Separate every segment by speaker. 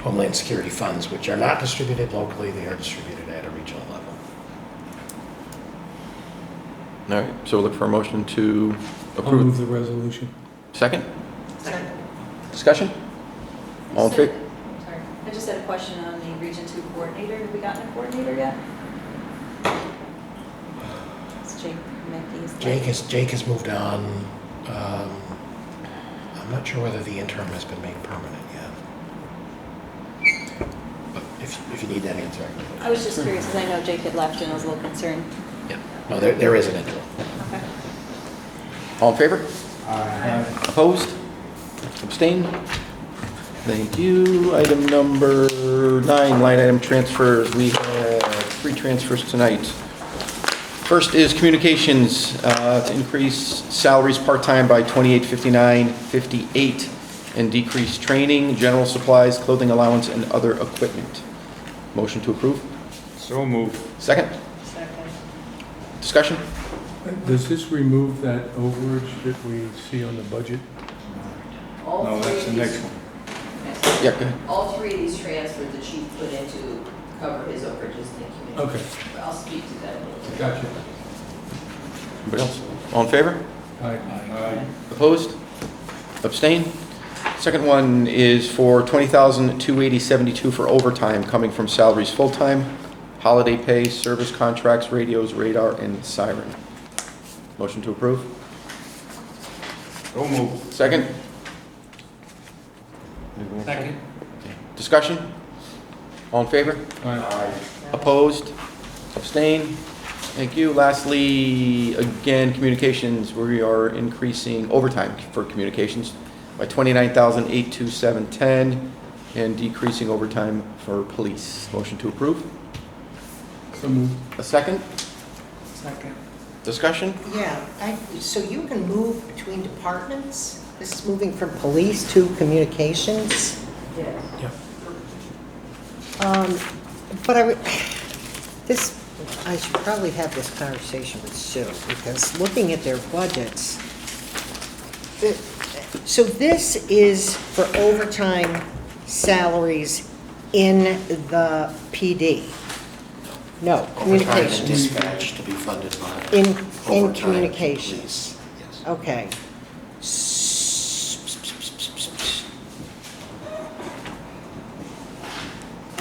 Speaker 1: Homeland Security funds, which are not distributed locally, they are distributed at a regional level.
Speaker 2: All right, so we'll look for a motion to
Speaker 3: I'll move
Speaker 2: approve.
Speaker 3: the resolution.
Speaker 2: Second,
Speaker 4: Sorry,
Speaker 2: discussion? All in favor?
Speaker 4: sorry. I just had a question on the Region Two coordinator. Have we gotten a coordinator yet? It's Jake Mackey's.
Speaker 1: Jake has, Jake has moved on. Um, I'm not sure whether the interim has been made permanent yet. But if, if you need that answer. I can-
Speaker 4: I was just curious, because I know Jake had left and I was a little concerned.
Speaker 1: Yeah, no, there, there is an interim.
Speaker 4: Okay.
Speaker 2: All in favor? Opposed? Abstained? Thank you. Item number nine, line item transfers. We have three transfers tonight. First is communications, uh, to increase salaries part-time by 2859.58 and decrease training, general supplies, clothing allowance, and other equipment. Motion to approve?
Speaker 5: So moved.
Speaker 2: Second?
Speaker 4: Second.
Speaker 2: Discussion?
Speaker 3: Does this remove that overage that we see on the budget?
Speaker 6: All
Speaker 5: No,
Speaker 6: three
Speaker 5: that's the
Speaker 6: of
Speaker 5: next
Speaker 6: these,
Speaker 5: one.
Speaker 6: next one.
Speaker 2: Yeah, go ahead.
Speaker 6: All three of these transfers the chief put in to cover his overages in the community.
Speaker 3: Okay.
Speaker 6: But
Speaker 5: Oh.
Speaker 6: I'll speak to that a little bit.
Speaker 3: Gotcha.
Speaker 2: Anybody else? All in favor?
Speaker 5: Aye.
Speaker 2: Opposed? Abstain. Second one is for $20,280.72 for overtime coming from salaries full-time, holiday pay, service contracts, radios, radar, and siren. Motion to approve?
Speaker 5: So moved.
Speaker 2: Second?
Speaker 3: Second.
Speaker 2: Discussion? All in favor? Opposed? Abstain. Thank you. Lastly, again, communications, we are increasing overtime for communications by 29,827.10 and decreasing overtime for police. Motion to approve.
Speaker 3: So moved.
Speaker 2: A second?
Speaker 7: Second.
Speaker 2: Discussion?
Speaker 7: Yeah, I, so you can move between departments? This is moving from police to communications?
Speaker 6: Yes.
Speaker 7: Um, But I would, this, I should probably have this conversation with Sue, because looking at their budgets, the- so this is for overtime salaries in the PD? No,
Speaker 1: Overtime and
Speaker 7: communications.
Speaker 1: dispatch to be funded by.
Speaker 7: In- in
Speaker 1: overtime and
Speaker 7: communications.
Speaker 1: police. Yes.
Speaker 7: Okay. Ah,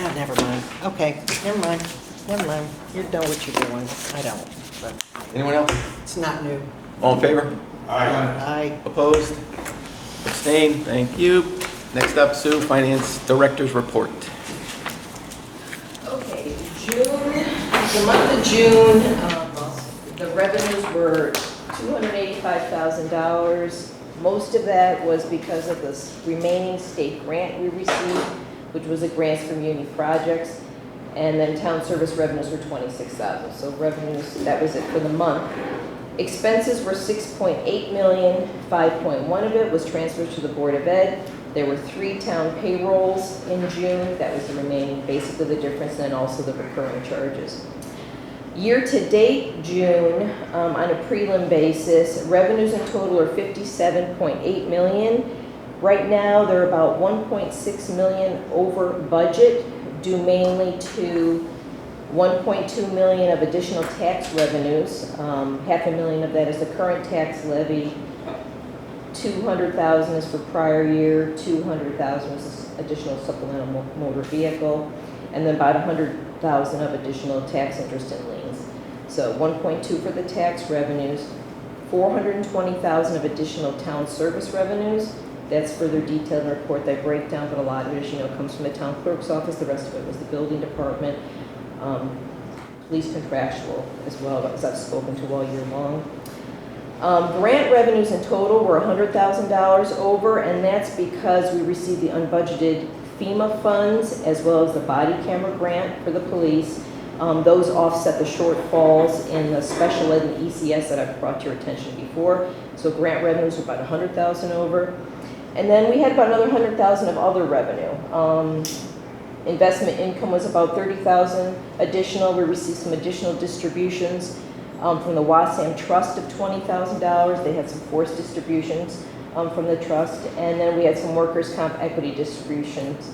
Speaker 7: Ah, never mind. Okay, never mind, never mind. You know what you're doing. I don't, but
Speaker 2: Anyone else?
Speaker 7: it's not new.
Speaker 2: All in favor?
Speaker 5: Aye.
Speaker 7: I,
Speaker 2: Opposed? Abstained. Thank you. Next up, Sue, Finance Director's Report.
Speaker 6: Okay, June, the month of June, um, the revenues were $285,000. Most of that was because of the s- remaining state grant we received, which was a grants from uni projects. And then town service revenues were 26,000. So revenues, that was it for the month. Expenses were 6.8 million, 5.1 of it was transferred to the Board of Ed. There were three town payrolls in June, that was the remaining, basically the difference, and also the recurring charges. Year-to-date June, um, on a prelim basis, revenues in total are 57.8 million. Right now, they're about 1.6 million over budget, due mainly to 1.2 million of additional tax revenues. Um, Half a million of that is the current tax levy. 200,000 is for prior year, 200,000 is additional supplemental mo- motor vehicle, and then about 100,000 of additional tax interest and liens. So 1.2 for the tax revenues, 420,000 of additional town service revenues. That's further detailed in the report, that breakdown, but a lot of it, as you know, comes from the town clerk's office. The rest of it was the building department, um, police contractual as well, as I've spoken to all year long. Um, Grant revenues in total were $100,000 over, and that's because we received the unbudgeted FEMA funds as well as the body camera grant for the police. Um, Those offset the shortfalls in the special ed and ECS that I've brought to your attention before. So grant revenues were about $100,000 over. And then we had about another $100,000 of other revenue. Um, Investment income was about $30,000 additional. We received some additional distributions um, from the Wasam Trust of $20,000. They had some forced distributions um, from the trust. And then we had some workers' comp equity distributions